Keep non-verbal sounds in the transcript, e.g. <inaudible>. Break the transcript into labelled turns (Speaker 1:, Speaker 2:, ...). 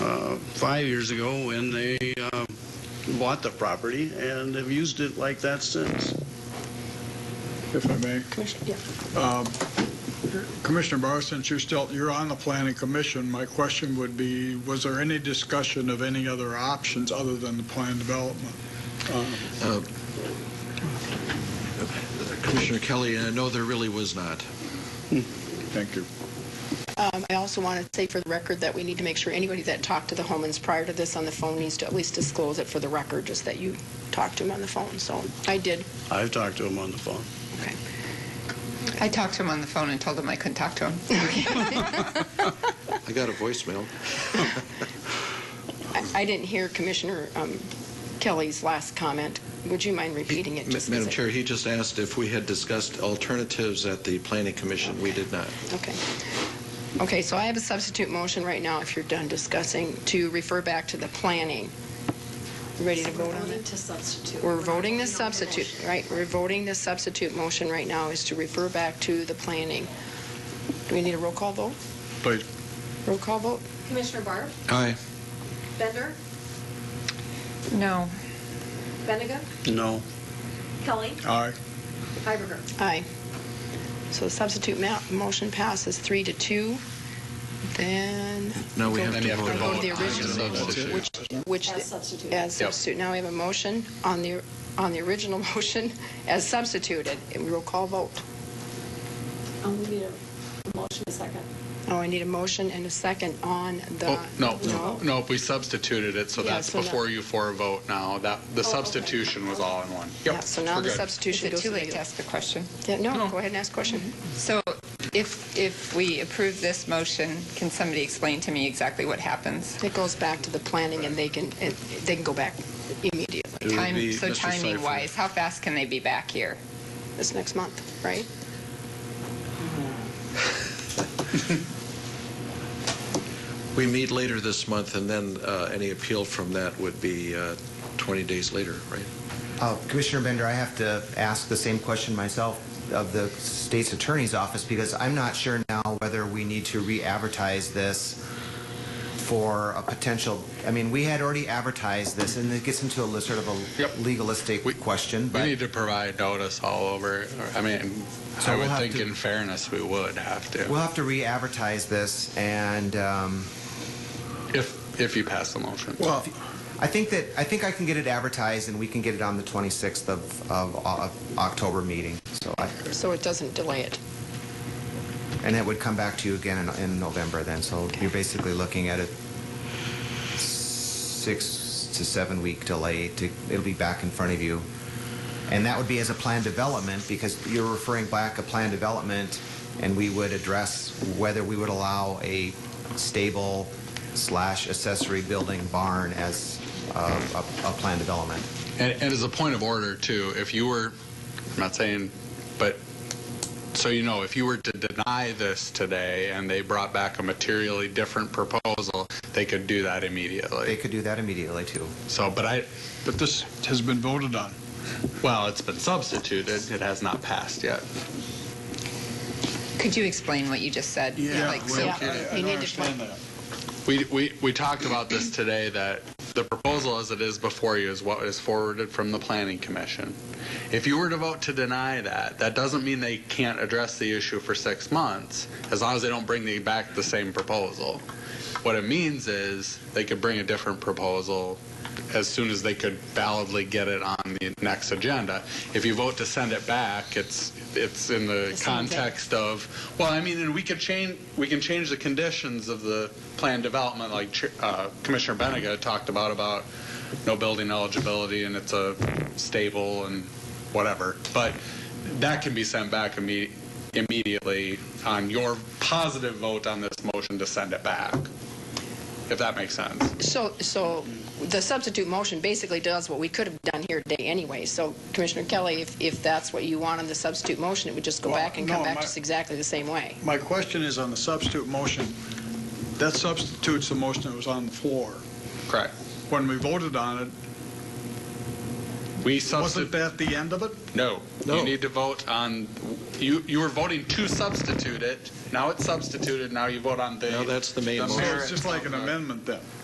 Speaker 1: uh, five years ago when they uh, bought the property and have used it like that since.
Speaker 2: if I may.
Speaker 3: Commissioner, yeah.
Speaker 2: Um, Commissioner Barr, since you're still, you're on the planning commission, my question would be, was there any discussion of any other options other than the planned development?
Speaker 4: Commissioner Kelly, uh, no, there really was not.
Speaker 2: Thank you.
Speaker 3: Um, I also want to say for the record that we need to make sure anybody that talked to the Homans prior to this on the phone needs to at least disclose it for the record, just that you talked to him on the phone. So I did.
Speaker 1: I've talked to them on the phone.
Speaker 3: Okay.
Speaker 5: I talked to him on the phone and told him I couldn't talk to him.
Speaker 3: <laughs>
Speaker 4: I got a voicemail.
Speaker 3: I- I didn't hear Commissioner um, Kelly's last comment. Would you mind repeating it?
Speaker 4: Ma-
Speaker 3: just as
Speaker 4: Madam
Speaker 3: it-
Speaker 4: Chair, he just asked if we had discussed alternatives at the planning commission. We did not.
Speaker 3: Okay. Okay, so I have a substitute motion right now, if you're done discussing, to refer back to the planning. You Ready to vote on it?
Speaker 6: To substitute.
Speaker 3: We're voting the
Speaker 6: We're not voting on the
Speaker 3: substitute,
Speaker 6: motion.
Speaker 3: right? We're voting the substitute motion right now is to refer back to the planning. Do we need a roll call vote?
Speaker 2: Please.
Speaker 3: Roll call vote?
Speaker 6: Commissioner Barb,
Speaker 4: Aye.
Speaker 6: Bender,
Speaker 5: No.
Speaker 6: Bendigo,
Speaker 1: No,
Speaker 6: Kelly,
Speaker 2: Aye.
Speaker 6: Heiberger.
Speaker 3: Aye. So the substitute ma- motion passes three to two. Then
Speaker 4: No, we have
Speaker 3: Go
Speaker 4: to
Speaker 3: to-
Speaker 4: vote.
Speaker 3: go to the
Speaker 4: on
Speaker 3: original.
Speaker 4: substitute.
Speaker 3: Which, which,
Speaker 6: As substituted.
Speaker 3: as substitute, now we have a motion on the, on the original <laughs> motion as substituted, and roll call vote.
Speaker 6: Um, we need a motion a second.
Speaker 3: Oh, I need a motion and a second on the.
Speaker 7: Oh, no, no, no, we substituted it, so
Speaker 3: Yeah,
Speaker 7: that's
Speaker 3: so Oh, now-
Speaker 7: before you for a vote now. That, the
Speaker 6: okay.
Speaker 7: substitution was all in one.
Speaker 3: Yeah, so now the
Speaker 7: we're good.
Speaker 5: Is
Speaker 3: substitution
Speaker 5: it
Speaker 3: goes to
Speaker 5: too
Speaker 3: the.
Speaker 5: late to ask the question?
Speaker 3: Yeah, No, go ahead and ask question.
Speaker 5: So if, if we approve this motion, can somebody explain to me exactly what happens?
Speaker 3: It goes back to the planning, and they can, and they can go back immediately.
Speaker 4: It would
Speaker 5: Time-
Speaker 4: be
Speaker 5: So
Speaker 4: Mr. Seifert.
Speaker 5: timing wise, how fast can they be back here?
Speaker 3: This next month, right?
Speaker 4: We meet later this month, and then uh, any appeal from that would be uh, 20 days later, right?
Speaker 8: Uh, Commissioner Bender, I have to ask the same question myself of the state's attorney's office because I'm not sure now whether we need to re-advertise this for a potential, I mean, we had already advertised this and it gets into a li- sort of
Speaker 7: Yep.
Speaker 8: a legalistic
Speaker 7: We-
Speaker 8: question,
Speaker 7: We
Speaker 8: but
Speaker 7: need to provide notice all over. I mean,
Speaker 8: So
Speaker 7: I
Speaker 8: we'll
Speaker 7: would
Speaker 8: have
Speaker 7: think
Speaker 8: to-
Speaker 7: in fairness, we would have
Speaker 8: we'll
Speaker 7: to,
Speaker 8: have to re-advertise this and um,
Speaker 7: if, if you pass the motion.
Speaker 2: Well,
Speaker 8: I think that, I think I can get it advertised and we can get it on the 26th of, of, of October meeting. So I,
Speaker 3: So it doesn't delay it.
Speaker 8: And it would come back to you again in, in November then, so you're basically looking at a six to seven week delay to, it'll be back in front of you. And that would be as a planned development, because you're referring back a planned development, and we would address whether we would allow a stable slash accessory building barn as uh, a, a planned development.
Speaker 7: And, and as a point of order, too, if you were, I'm not saying, but so you know, if you were to deny this today and they brought back a materially different proposal, they could do that
Speaker 8: They
Speaker 7: immediately.
Speaker 8: could do that immediately too.
Speaker 7: So, but I,
Speaker 2: but this has been voted on.
Speaker 7: well, it's been substituted. It has not passed yet.
Speaker 5: Could you explain what you just said? Like, so-
Speaker 2: well,
Speaker 3: Yeah.
Speaker 2: I- I
Speaker 3: You
Speaker 2: don't
Speaker 3: need to
Speaker 2: understand
Speaker 3: plan-
Speaker 2: that.
Speaker 7: We, we, we talked about this today, that the proposal as it is before you is what is forwarded from the planning commission. If you were to vote to deny that, that doesn't mean they can't address the issue for six months, as long as they don't bring the, back the same proposal. What it means is they could bring a different proposal as soon as they could validly get it on the next agenda. If you vote to send it back, it's, it's in the
Speaker 3: same thing.
Speaker 7: context of, well, I mean, and we could change, we can change the conditions of the planned development, like Chair- uh, Commissioner Benega talked about, about no building eligibility, and it's a stable and whatever. But that can be sent back imme- immediately on your positive vote on this motion to send it back, if that makes sense.
Speaker 3: So, so the substitute motion basically does what we could have done here today anyway. So Commissioner Kelly, if, if that's what you want on the substitute motion, it would just go
Speaker 2: Well,
Speaker 3: back and come
Speaker 2: no,
Speaker 3: back
Speaker 2: my-
Speaker 3: just exactly the same way.
Speaker 2: My question is on the substitute motion. That substitutes the motion that was on the floor.
Speaker 7: Correct.
Speaker 2: When we voted on it,
Speaker 7: We
Speaker 2: wasn't
Speaker 7: substitute,
Speaker 2: that the end of it?
Speaker 7: no,
Speaker 4: No.
Speaker 7: you need to vote on, you, you were voting to substitute it, now it's substituted, now you vote on the.
Speaker 4: Now that's the main
Speaker 7: the
Speaker 4: motion.
Speaker 2: So
Speaker 7: merits
Speaker 2: it's just like an
Speaker 7: of the-
Speaker 2: amendment then.